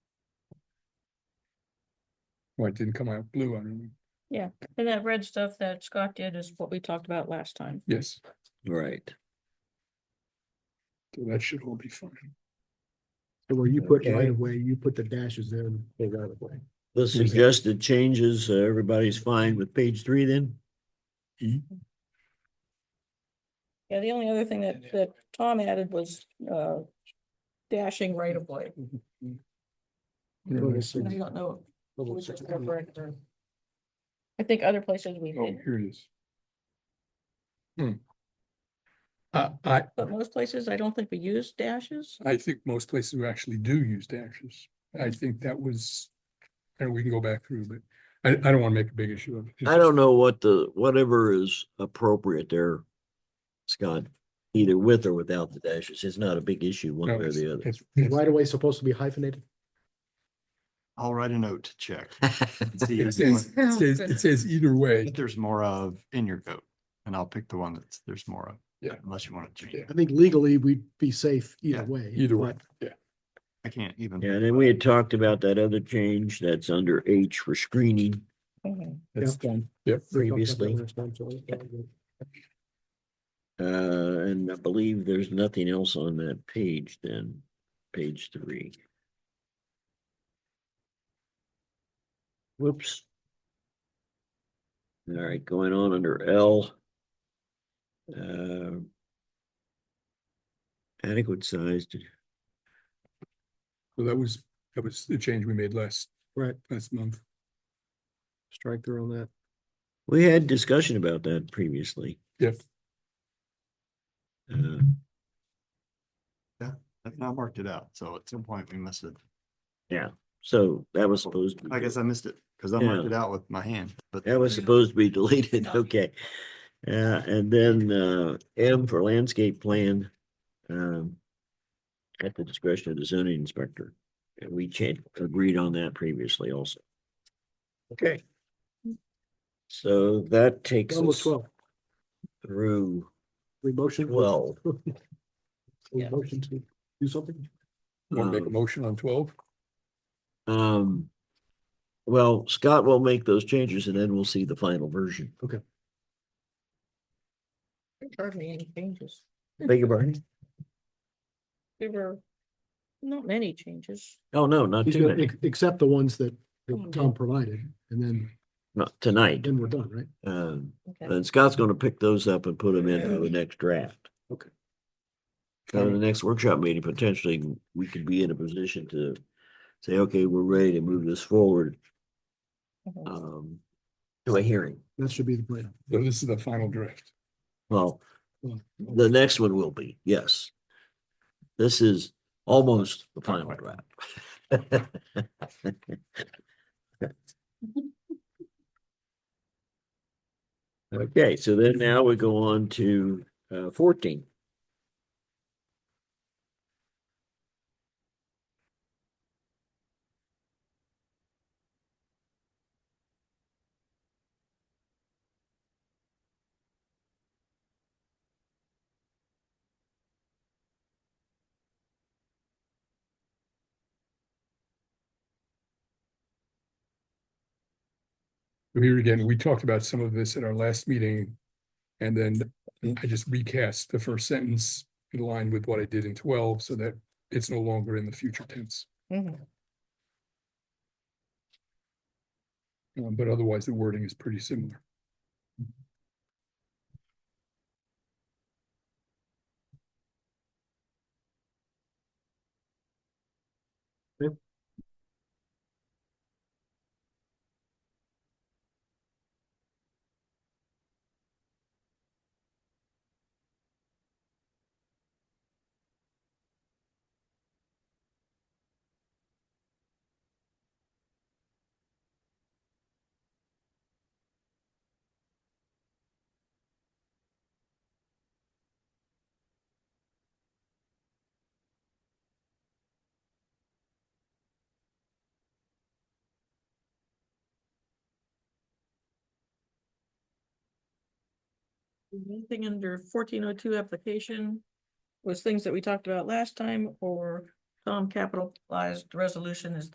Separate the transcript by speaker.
Speaker 1: Well, it didn't come out blue, I remember.
Speaker 2: And that red stuff that Scott did is what we talked about last time.
Speaker 1: Yes,
Speaker 3: Right.
Speaker 1: so that should all be fine.
Speaker 4: So where you put
Speaker 3: Okay.
Speaker 4: right of way, you put the dashes there and they right of way.
Speaker 3: The suggested changes, uh, everybody's fine with page three then?
Speaker 1: E?
Speaker 2: Yeah, the only other thing that, that Tom added was, uh, dashing right of way.
Speaker 1: Really nice.
Speaker 2: And I don't know.
Speaker 4: Level
Speaker 2: which is
Speaker 4: six.
Speaker 2: correct or- I think other places we
Speaker 1: Oh,
Speaker 2: did,
Speaker 1: here it is. Hmm. Uh, I,
Speaker 2: but most places I don't think we use dashes.
Speaker 1: I think most places we actually do use dashes. I think that was, and we can go back through, but I, I don't want to make a big issue of it. It's
Speaker 3: I don't know what the, whatever is appropriate there, Scott, either with or without the dashes. It's not a big issue
Speaker 1: just-
Speaker 3: one
Speaker 1: no,
Speaker 3: way or the
Speaker 1: it's-
Speaker 3: other.
Speaker 1: it's-
Speaker 4: Is
Speaker 1: it's-
Speaker 4: right of way supposed to be hyphenated?
Speaker 5: I'll write a note to check. See
Speaker 1: It
Speaker 5: if
Speaker 1: says,
Speaker 5: there's-
Speaker 1: it says, it says either way.
Speaker 5: if there's more of in your vote, and I'll pick the one that's, there's more of.
Speaker 1: Yeah.
Speaker 5: Unless you want to change.
Speaker 1: Yeah.
Speaker 5: it.
Speaker 4: I think legally we'd be safe
Speaker 5: Yeah,
Speaker 4: either way.
Speaker 1: Either way,
Speaker 4: but
Speaker 1: yeah.
Speaker 5: I can't even.
Speaker 3: Yeah, And then we had talked about that other change that's under H for screening.
Speaker 2: Mhm.
Speaker 3: That's done.
Speaker 4: we talked about that
Speaker 3: Previously.
Speaker 4: last time, so it's not good.
Speaker 3: Uh, and I believe there's nothing else on that page then, page three. Whoops. All right, going on under L. Uh, Adequate sized,
Speaker 1: So that was, that was the change we made last,
Speaker 4: Right,
Speaker 1: last month.
Speaker 4: strike through on that.
Speaker 3: we had discussion about that previously.
Speaker 1: Yes.
Speaker 3: Uh,
Speaker 5: I've not marked it out, so at some point we missed it.
Speaker 3: so that was supposed to. be
Speaker 5: I guess I missed it because I marked it out with my hand, but.
Speaker 3: That was supposed to be deleted, okay. Uh, and then, uh, M for landscape plan, um, at the discretion of the zoning inspector. And we cha- agreed on that previously also. Okay. So that takes
Speaker 4: Almost
Speaker 3: us
Speaker 4: twelve.
Speaker 3: through
Speaker 4: We motion.
Speaker 3: twelve.
Speaker 4: We
Speaker 2: Yeah.
Speaker 4: motion to do something.
Speaker 1: Want to make a
Speaker 3: Um,
Speaker 1: motion on twelve?
Speaker 3: Um, well, Scott will make those changes and then we'll see the final version.
Speaker 2: Hardly any changes.
Speaker 3: Beg your pardon?
Speaker 2: There were not many changes.
Speaker 3: Oh, no, not
Speaker 4: He's
Speaker 3: too
Speaker 4: gonna
Speaker 3: many,
Speaker 4: ex- Except the ones that that
Speaker 2: Oh,
Speaker 4: Tom provided, and then,
Speaker 3: not tonight.
Speaker 4: then we're done, right?
Speaker 3: Um,
Speaker 2: Okay.
Speaker 3: And Scott's gonna pick those up and put them into the next draft.
Speaker 4: Okay.
Speaker 3: So
Speaker 1: Um,
Speaker 3: in the next workshop meeting, potentially, we could be in a position to say, okay, we're ready to move this forward,
Speaker 2: Mhm.
Speaker 3: um, to a hearing.
Speaker 4: That should be the plan.
Speaker 1: So this is the final draft.
Speaker 3: Well, the next one will be, yes. This is almost the final draft. Okay, so then now we go on to uh, fourteen.
Speaker 1: Here again, we talked about some of this at our last meeting. And then I just recast the first sentence in line with what I did in twelve so that it's no longer in the future tense.
Speaker 2: Mhm.
Speaker 1: Um, But otherwise, the wording is pretty similar.
Speaker 2: Anything under fourteen oh two application was things that we talked about last time or Tom capitalized um, resolution is